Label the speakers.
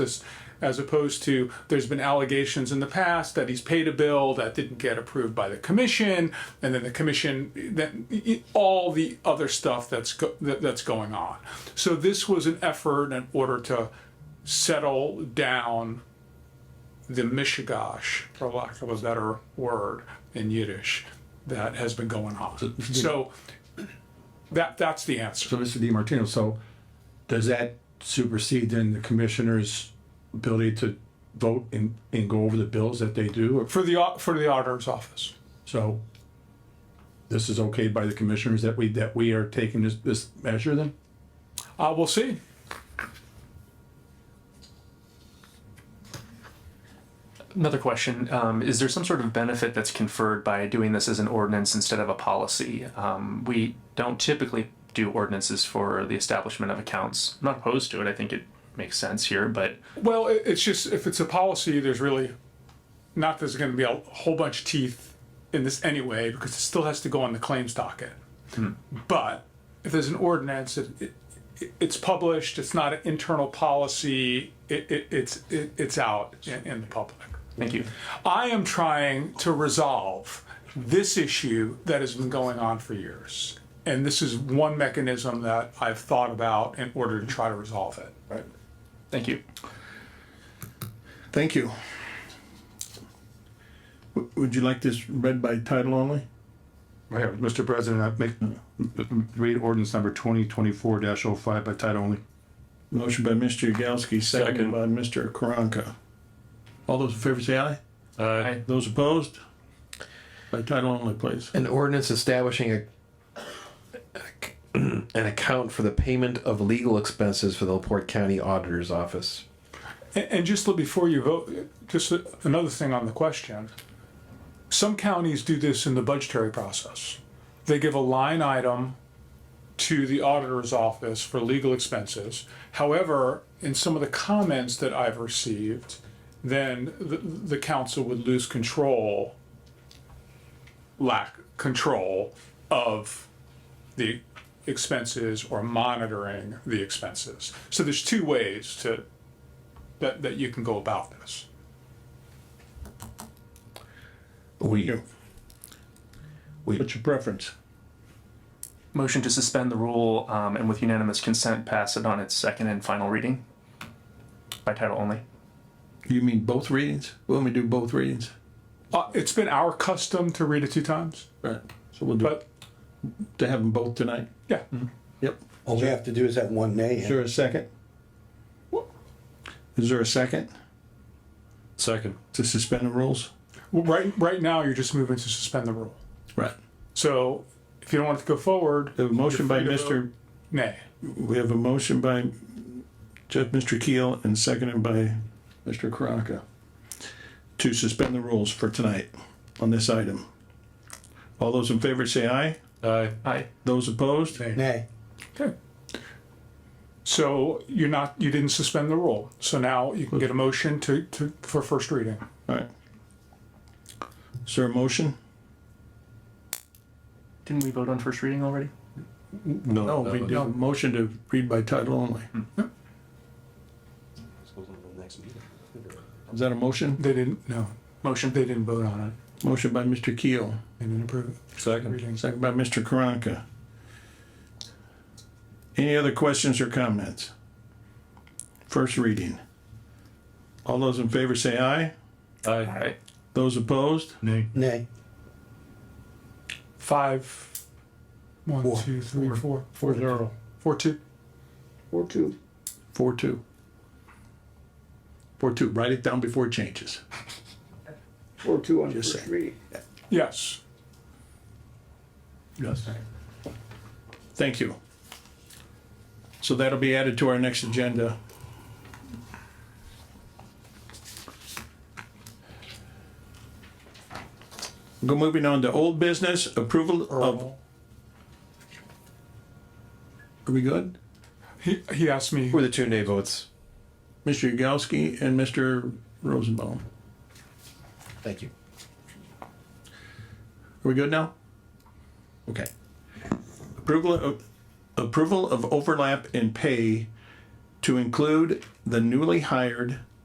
Speaker 1: this, as opposed to, there's been allegations in the past that he's paid a bill that didn't get approved by the commission, and then the commission, that, all the other stuff that's, go- that- that's going on. So this was an effort in order to settle down the mishigash, for lack of a better word in Yiddish, that has been going on. So that, that's the answer.
Speaker 2: So Mr. DiMartino, so does that supersede then the commissioner's ability to vote and, and go over the bills that they do? Or-
Speaker 1: For the, au- for the auditor's office.
Speaker 2: So this is okay by the commissioners that we, that we are taking this, this measure then?
Speaker 1: Uh, we'll see.
Speaker 3: Another question, um, is there some sort of benefit that's conferred by doing this as an ordinance instead of a policy? Um, we don't typically do ordinances for the establishment of accounts. I'm not opposed to it, I think it makes sense here, but
Speaker 1: Well, it, it's just, if it's a policy, there's really, not there's gonna be a whole bunch of teeth in this anyway, because it still has to go on the claims docket. But if there's an ordinance, it, it, it- it's published, it's not an internal policy, it, it, it's, it, it's out in, in the public.
Speaker 3: thank you.
Speaker 1: I am trying to resolve this issue that has been going on for years. And this is one mechanism that I've thought about in order to try to resolve it.
Speaker 3: Thank you.
Speaker 4: Thank you. W- Would you like this read by title only?
Speaker 2: Right, Mr. President, I make, read ordinance number twenty twenty-four dash oh five by title only.
Speaker 4: Motion by Mr. Yagowski, seconded by Mr. Karanka. All those in favor say aye.
Speaker 3: Aye.
Speaker 4: Those opposed? By title only, please.
Speaker 5: An ordinance establishing a an account for the payment of legal expenses for the Laporte County Auditor's Office.
Speaker 1: And, and just look before you vote, just a- another thing on the question. Some counties do this in the budgetary process. They give a line item to the auditor's office for legal expenses. However, in some of the comments that I've received, then the, the council would lose control, lack control of the expenses or monitoring the expenses. So there's two ways to, that, that you can go about this.
Speaker 5: We,
Speaker 4: You. What's your preference?
Speaker 3: Motion to suspend the rule, um, and with unanimous consent, pass it on its second and final reading by title only.
Speaker 4: You mean both readings? When we do both readings?
Speaker 1: Uh, it's been our custom to read it two times,
Speaker 4: Right. So we'll do,
Speaker 1: but
Speaker 4: to have them both tonight?
Speaker 1: yeah.
Speaker 4: Yep.
Speaker 6: All we have to do is have one nay.
Speaker 4: Is there a second? Is there a second
Speaker 2: Second.
Speaker 4: to suspend the rules?
Speaker 1: Well, Right, right now, you're just moving to suspend the rule.
Speaker 4: Right.
Speaker 1: So if you don't want it to go forward,
Speaker 4: The motion by
Speaker 1: You're free to
Speaker 4: Mr.
Speaker 1: nay.
Speaker 4: We have a motion by Judge Mr. Keel and seconded by Mr. Karanka to suspend the rules for tonight on this item. All those in favor say aye.
Speaker 3: Aye.
Speaker 4: Those opposed?
Speaker 6: Nay.
Speaker 1: Okay. So you're not, you didn't suspend the rule. So now you can get a motion to, to, for first reading.
Speaker 4: All right. Is there a motion?
Speaker 3: Didn't we vote on first reading already?
Speaker 4: No, we Hmm. did a motion to read by title only. Is that a motion?
Speaker 1: They didn't, no,
Speaker 3: Motion.
Speaker 1: they didn't vote on it.
Speaker 4: Motion by Mr. Keel,
Speaker 1: They didn't approve it.
Speaker 2: Second.
Speaker 1: Reading.
Speaker 4: second by Mr. Karanka. Any other questions or comments? First reading. All those in favor say aye.
Speaker 3: Aye.
Speaker 4: Those opposed?
Speaker 6: Nay.
Speaker 1: Five, one,
Speaker 6: Four.
Speaker 1: two, three, four,
Speaker 4: Four zero.
Speaker 1: four, two.
Speaker 4: Four two. Four two, write it down before it changes.
Speaker 7: Or two on
Speaker 4: Just
Speaker 7: first
Speaker 4: saying.
Speaker 7: reading.
Speaker 1: Yes.
Speaker 4: Yes. Thank you. So that'll be added to our next agenda. Go moving on to old business, approval of, are we good?
Speaker 1: He, he asked me.
Speaker 5: Were the two nay votes?
Speaker 4: Mr. Yagowski and Mr. Rosenbaum.
Speaker 5: Thank you.
Speaker 4: Are we good now? Okay. Approval of, approval of overlap in pay to include the newly hired